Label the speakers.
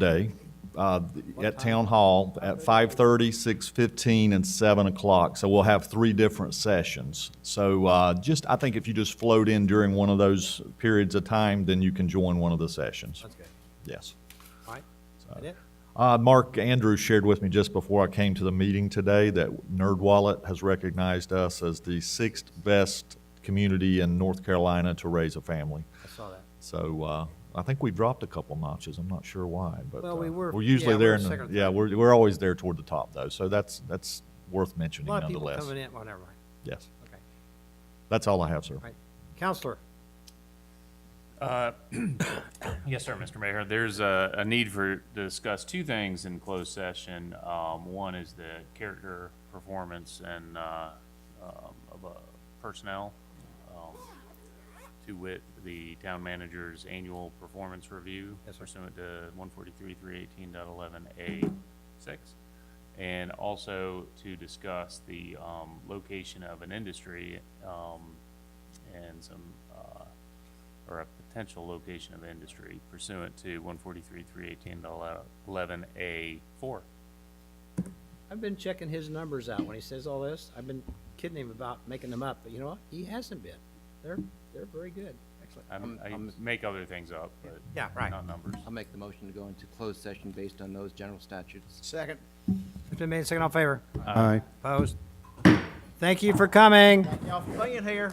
Speaker 1: Day uh, at Town Hall at 5:30, 6:15, and 7 o'clock. So we'll have three different sessions. So uh, just, I think if you just float in during one of those periods of time, then you can join one of the sessions.
Speaker 2: That's good.
Speaker 1: Yes.
Speaker 2: All right. That it?
Speaker 1: Uh, Mark Andrews shared with me just before I came to the meeting today that NerdWallet has recognized us as the sixth best community in North Carolina to raise a family.
Speaker 2: I saw that.
Speaker 1: So uh, I think we dropped a couple notches. I'm not sure why, but
Speaker 2: Well, we
Speaker 1: uh,
Speaker 2: were-
Speaker 1: we're usually
Speaker 2: yeah, we
Speaker 1: there.
Speaker 2: were
Speaker 1: in the-
Speaker 2: second or
Speaker 1: yeah,
Speaker 2: third.
Speaker 1: we're we're always there toward the top though. So that's that's worth
Speaker 2: A
Speaker 1: mentioning
Speaker 2: lot of people
Speaker 1: nonetheless.
Speaker 2: coming in, well, never mind.
Speaker 1: Yes,
Speaker 2: Okay,
Speaker 1: that's all I have, sir.
Speaker 2: all right. Counselor,
Speaker 3: Yes, sir, Mr. Mayor. There's a, a need for, to discuss two things in closed session. Um, one is the character, performance, and, uh, um, of, uh, personnel. um, To wit, the town manager's annual performance review
Speaker 2: Yes, sir.
Speaker 3: pursuant to one forty-three, three eighteen dot eleven A six. And also to discuss the, um, location of an industry, um, and some, uh, or a potential location of industry pursuant to one forty-three, three eighteen, eleven A four.
Speaker 2: I've been checking his numbers out when he says all this. I've been kidding him about making them up, but you know what? He hasn't been. They're, they're very good. Excellent.
Speaker 3: I
Speaker 4: I'm- I'm-
Speaker 3: make other things up, but.
Speaker 2: Yeah, right.
Speaker 3: Not numbers.
Speaker 4: I'll make the motion to go into closed session based on those general statutes.
Speaker 2: Second. It's been made second all in favor.
Speaker 5: Aye.
Speaker 2: Opposed? Thank you for coming. Y'all for being here.